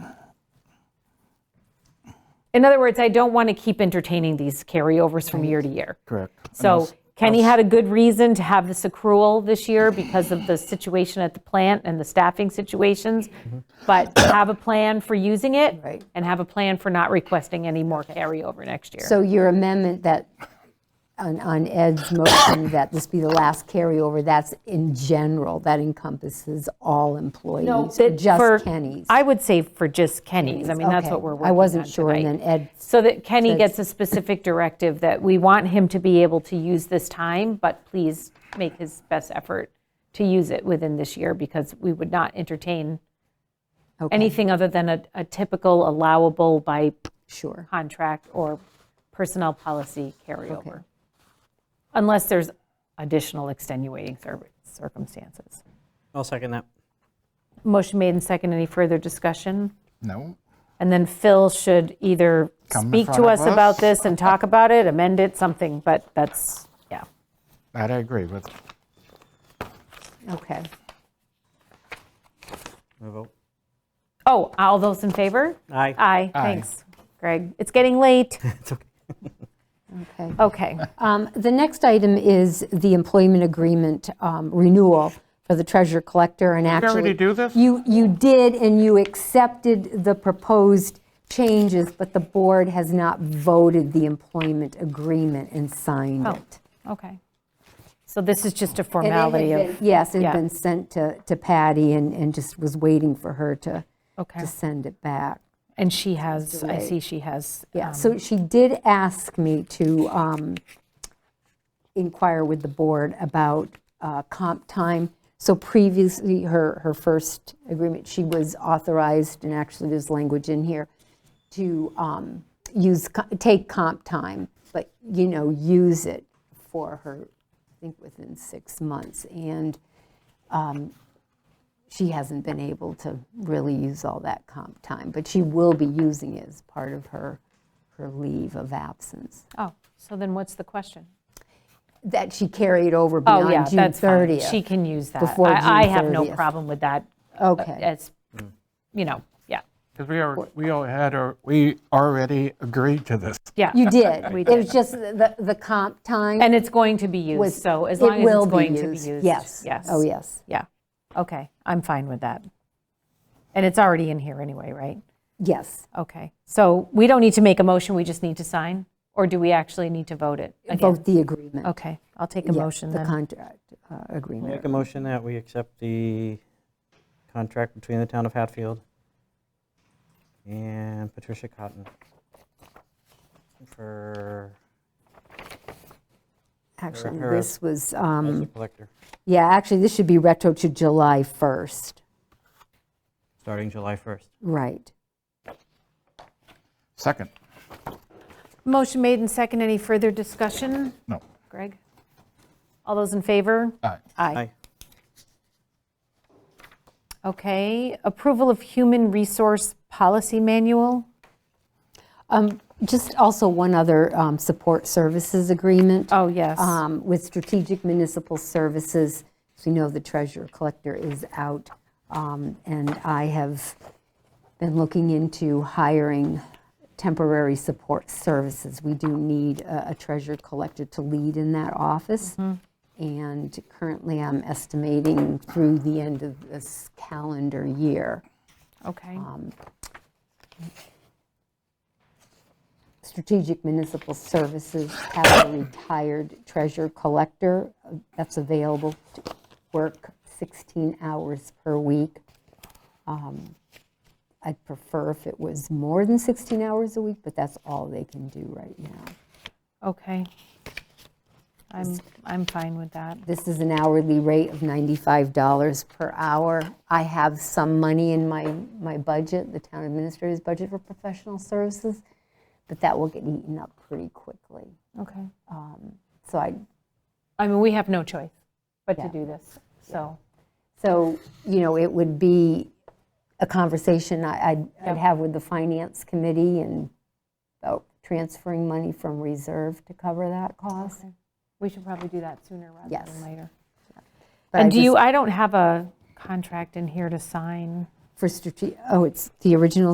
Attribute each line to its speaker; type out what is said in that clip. Speaker 1: In other words, I don't want to keep entertaining these carryovers from year to year.
Speaker 2: Correct.
Speaker 1: So Kenny had a good reason to have this accrual this year because of the situation at the plant and the staffing situations. But have a plan for using it
Speaker 3: Right.
Speaker 1: and have a plan for not requesting any more carryover next year.
Speaker 3: So your amendment that, on on Ed's motion, that this be the last carryover, that's in general, that encompasses all employees, or
Speaker 1: That for-
Speaker 3: just Kenny's?
Speaker 1: I would say for just Kenny's. I mean, that's
Speaker 3: Okay.
Speaker 1: what we're working on
Speaker 3: I wasn't sure, and
Speaker 1: tonight.
Speaker 3: then Ed,
Speaker 1: So that Kenny gets a specific directive that we want him to be able to use this time, but please make his best effort to use it within this year because we would not entertain
Speaker 3: okay,
Speaker 1: anything other than a, a typical allowable by
Speaker 3: sure.
Speaker 1: contract or personnel policy carryover. Unless there's additional extenuating cir- circumstances.
Speaker 4: I'll second that.
Speaker 1: Motion made and second. Any further discussion?
Speaker 2: No.
Speaker 1: And then Phil should either
Speaker 2: Come in
Speaker 1: speak to
Speaker 2: front of
Speaker 1: us about
Speaker 2: us.
Speaker 1: this and talk about it, amend it, something, but that's, yeah.
Speaker 2: That I agree with.
Speaker 3: Okay.
Speaker 4: No vote.
Speaker 1: Oh, all those in favor?
Speaker 4: Aye.
Speaker 1: Aye, thanks, Greg. It's getting late.
Speaker 4: It's okay.
Speaker 3: Okay.
Speaker 1: Okay.
Speaker 3: Um, The next item is the employment agreement um, renewal for the treasurer collector, and
Speaker 2: we
Speaker 3: actually...
Speaker 2: already do this?
Speaker 3: You, you did, and you accepted the proposed changes, but the board has not voted the employment agreement and signed
Speaker 1: Oh,
Speaker 3: it.
Speaker 1: okay. So this is just a
Speaker 3: And it had
Speaker 1: formality
Speaker 3: been-
Speaker 1: of,
Speaker 3: Yes, it
Speaker 1: yeah.
Speaker 3: had been sent to to Patty and, and just was waiting for her to,
Speaker 1: okay.
Speaker 3: to send it back.
Speaker 1: And she has, I
Speaker 3: Delay.
Speaker 1: see she has.
Speaker 3: Yeah,
Speaker 1: um,
Speaker 3: so she did ask me to um, inquire with the board about uh, comp time. So previously, her, her first agreement, she was authorized, and actually there's language in here, to um, use, co- take comp time, but, you know, use it for her, I think, within six months. And she hasn't been able to really use all that comp time, but she will be using it as part of her, her leave of absence
Speaker 1: Oh, so then what's the question?
Speaker 3: that she carried over
Speaker 1: Oh, yeah,
Speaker 3: beyond June
Speaker 1: that's fine.
Speaker 3: 30th.
Speaker 1: She can use that.
Speaker 3: Before
Speaker 1: I I
Speaker 3: June
Speaker 1: have no
Speaker 3: 30th.
Speaker 1: problem with that. uh,
Speaker 3: Okay.
Speaker 1: As, you know, yeah,
Speaker 2: Because we are, we all had, our- we already agreed to this.
Speaker 1: yeah.
Speaker 3: You did.
Speaker 1: We
Speaker 3: It was just the, the comp time
Speaker 1: And it's going to be used,
Speaker 3: was.
Speaker 1: so as
Speaker 3: it
Speaker 1: long as
Speaker 3: will
Speaker 1: it's going to be
Speaker 3: used.
Speaker 1: used.
Speaker 3: Yes.
Speaker 1: Yes.
Speaker 3: Oh, yes.
Speaker 1: Yeah, okay, I'm fine with that. And it's already in here anyway, right?
Speaker 3: Yes.
Speaker 1: Okay, so we don't need to make a motion, we just need to sign? Or do we actually need to vote it again?
Speaker 3: Vote the agreement.
Speaker 1: Okay, I'll take a
Speaker 3: Yeah,
Speaker 1: motion
Speaker 3: The
Speaker 1: then.
Speaker 3: contract uh,
Speaker 4: Make
Speaker 3: agreement.
Speaker 4: a motion that we accept the contract between the town of Hatfield and Patricia Cotton for
Speaker 3: Actually,
Speaker 4: her-
Speaker 3: this was,
Speaker 4: as a
Speaker 3: um,
Speaker 4: collector,
Speaker 3: yeah, actually, this should be retro to July 1st.
Speaker 4: starting July 1st.
Speaker 3: Right.
Speaker 2: Second,
Speaker 1: Motion made and second, any further discussion?
Speaker 2: no.
Speaker 1: Greg? All those in favor?
Speaker 2: Aye.
Speaker 1: Aye. Okay, approval of human resource policy manual?
Speaker 3: Just also one other um, support services agreement.
Speaker 1: Oh, yes.
Speaker 3: um, with Strategic Municipal Services. As we know, the treasurer collector is out, um, and I have been looking into hiring temporary support services. We do need a a treasurer collector to lead in that office.
Speaker 1: Mm-hmm.
Speaker 3: And currently, I'm estimating through the end of this calendar year.
Speaker 1: Okay,
Speaker 3: Um, Strategic Municipal Services have a retired treasure collector uh, that's available to work 16 hours per week. Um, I'd prefer if it was more than 16 hours a week, but that's all they can do right now.
Speaker 1: okay. I'm, I'm fine with that.
Speaker 3: This is an hourly rate of $95 per hour. I have some money in my, my budget, the town administrator's budget for professional services, but that will get eaten up pretty quickly.
Speaker 1: Okay.
Speaker 3: So I,
Speaker 1: I mean, we have no choice but to
Speaker 3: Yeah.
Speaker 1: do this, so.
Speaker 3: So, you know, it would be a conversation I- I'd, I'd have with the finance committee and about transferring money from reserve to cover that cost.
Speaker 1: We should probably do that sooner rather than
Speaker 3: Yes.
Speaker 1: later.
Speaker 3: But I
Speaker 1: And do
Speaker 3: just-
Speaker 1: you, I don't have a contract in here to sign.
Speaker 3: For strate, oh, it's the original